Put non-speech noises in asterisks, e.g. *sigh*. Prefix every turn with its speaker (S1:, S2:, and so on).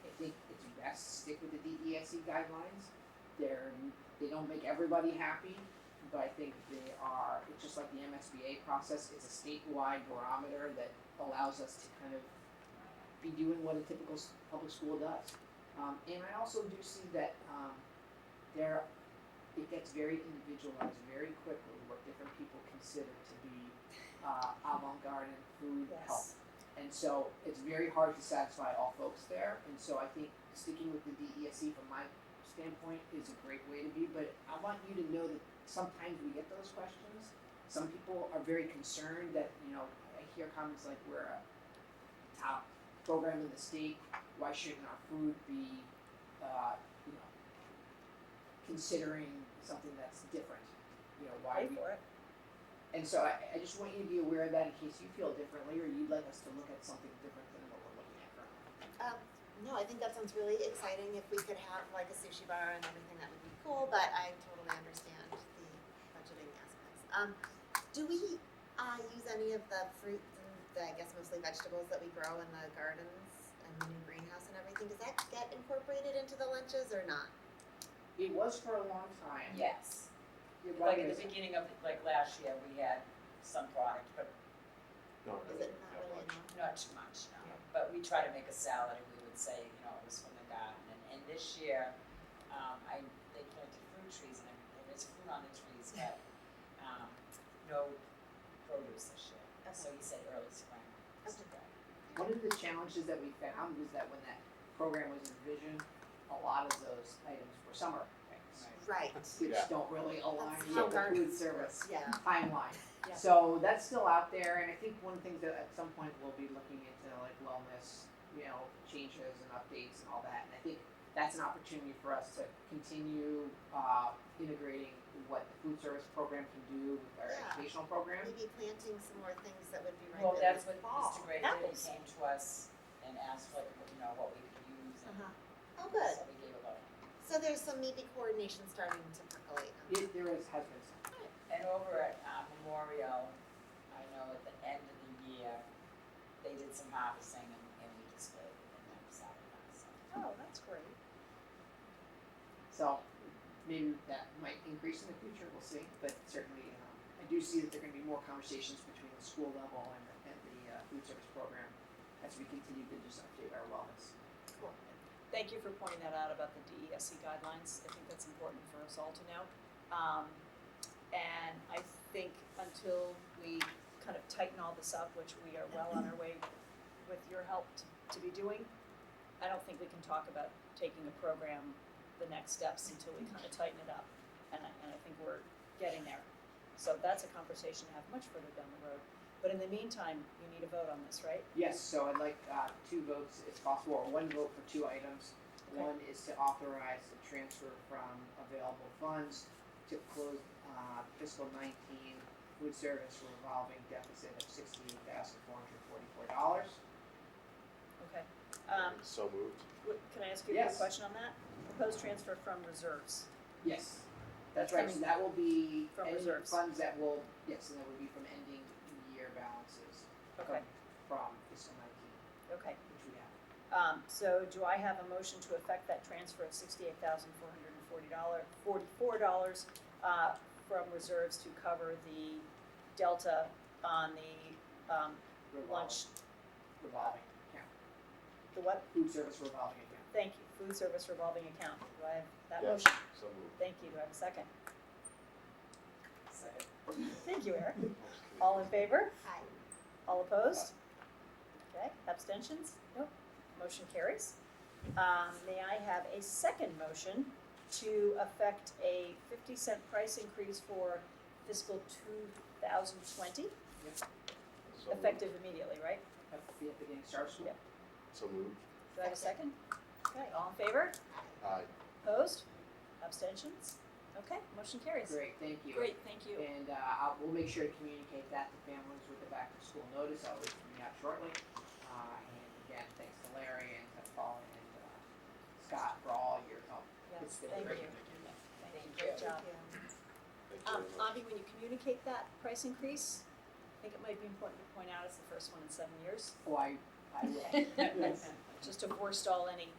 S1: fancy E guidelines. They're, they don't make everybody happy, but I think they are, it's just like the MSBA process, it's a statewide barometer that allows us to kind of be doing what a typical s- public school does. Um, and I also do see that, um, there, it gets very individualized very quickly, what different people consider to be, uh, avant-garde and food health.
S2: Yes.
S1: And so it's very hard to satisfy all folks there. And so I think sticking with the DESE E from my standpoint is a great way to be. But I want you to know that sometimes we get those questions. Some people are very concerned that, you know, I hear comments like we're a top program in the state. Why shouldn't our food be, uh, you know, considering something that's different? You know, why we
S2: Pay for it.
S1: and so I, I just want you to be aware of that in case you feel differently or you'd like us to look at something different than what we're looking at currently.
S3: Um, no, I think that sounds really exciting. If we could have like a sushi bar and everything, that would be cool, but I totally understand the budgeting aspects. Um, do we, uh, use any of the fruits and the, I guess mostly vegetables that we grow in the gardens and the new greenhouse and everything? Does that get incorporated into the lunches or not?
S1: It was for a long time.
S4: Yes,
S1: You're right,
S4: like at the
S1: it's-
S4: beginning of, like last year, we had some product, but
S5: Not
S3: Is
S5: really,
S3: it not
S5: not
S3: really
S5: much.
S3: enough?
S4: not too much, no. But we try to make a salad and we would say, you know, it was from the garden. And, and this year, um, I, they planted fruit trees and I- there is fruit on the
S2: *laughs*
S4: trees, but, um, no produce this year. So he said early spring. is
S3: Okay.
S4: good.
S1: One of the challenges that we found was that when that program was envisioned, a lot of those items were summer things,
S3: Right,
S1: which
S5: Yeah.
S1: don't really align
S3: That's
S1: with
S3: how
S1: the food
S3: gardens
S1: service
S3: yeah.
S1: timeline.
S2: Yeah.
S1: So that's still out there, and I think one of the things that at some point we'll be looking into like wellness, you know, changes and updates and all that. And I think that's an opportunity for us to continue uh, integrating what the food service program can do with our
S3: Yeah.
S1: educational program.
S3: Maybe planting some more things that would be ripe
S4: Well,
S3: in
S4: that's
S3: the
S4: what
S3: fall.
S4: Mr. Gray did. He
S2: Apples.
S4: came to us and asked like, you know, what we could use and
S3: Uh-huh. Oh, good.
S4: so we gave a lot.
S3: So there's some maybe coordination starting to percolate. on
S1: It, there is, has been some.
S4: And over at uh, Memorial, I know at the end of the year, they did some harvesting and, and we displayed it and that was out of us.
S2: Oh, that's great.
S1: So maybe that might increase in the future, we'll see. But certainly, um, I do see that there are going to be more conversations between the school level and, and the uh, food service program as we continue to just update our wellness.
S2: Thank you for pointing that out about the DESE E guidelines. I think that's important for us all to know. Um, and I think until we kind of tighten all this up, which we are well on our way with your help to, to be doing, I don't think we can talk about taking a program the next steps until we kind of tighten it up. And I, and I think we're getting there. So that's a conversation to have much further down the road. But in the meantime, you need a vote on this, right?
S1: Yes, so I'd like uh, two votes if possible, or one vote for two items.
S2: Okay.
S1: One is to authorize the transfer from available funds to close uh, fiscal nineteen food service revolving deficit of sixty-eight thousand four hundred forty-four dollars.
S2: Okay. Um,
S5: So moved.
S2: Wait, Can I ask you a quick
S1: Yes.
S2: question on that? Proposed transfer from reserves.
S1: Yes, that's right, so that will be
S2: From
S1: any
S2: reserves.
S1: funds that will, yes, and that would be from ending year balances
S2: Okay,
S1: from- from fiscal nineteen,
S2: okay.
S1: which we have.
S2: Um, so do I have a motion to effect that transfer of sixty-eight thousand four hundred and forty dollar, forty-four dollars, uh, from reserves to cover the delta on the, um,
S1: revolving-
S2: lunch,
S1: Revolving account,
S2: the what?
S1: food service revolving account.
S2: Thank you, food service revolving account. Do I have that
S5: Yes.
S2: motion?
S5: So moved.
S2: Thank you. Do I have a second?
S4: So,
S2: Thank you, Eric.
S5: I was kidding.
S2: All in favor?
S3: Hi.
S2: All opposed? Okay, abstentions? Nope, motion carries. Um, may I have a second motion to affect a fifty cent price increase for fiscal two thousand twenty,
S5: So moved.
S2: effective immediately, right?
S1: At the beginning, start of school.
S2: Yep.
S5: So moved.
S2: Do I have a second? Okay, all in favor?
S5: Aye.
S2: Opposed? Abstentions? Okay, motion carries.
S1: Great, thank you.
S2: Great, thank you.
S1: And uh, I'll, we'll make sure to communicate that to families with the back to school notice, I'll be coming out shortly. Uh, and again, thanks to Larry and to Paul and uh, Scott for all your help.
S2: Yes,
S1: It's been
S2: thank you.
S1: great.
S2: Thank you,
S4: Thank
S2: great
S4: you.
S2: job.
S5: Thank you
S2: Um,
S5: very much.
S2: Avi, when you communicate that price increase, I think it might be important to point out it's the first one in seven years. *laughs*
S1: Oh, I, I will. Yes.
S2: just to forestall any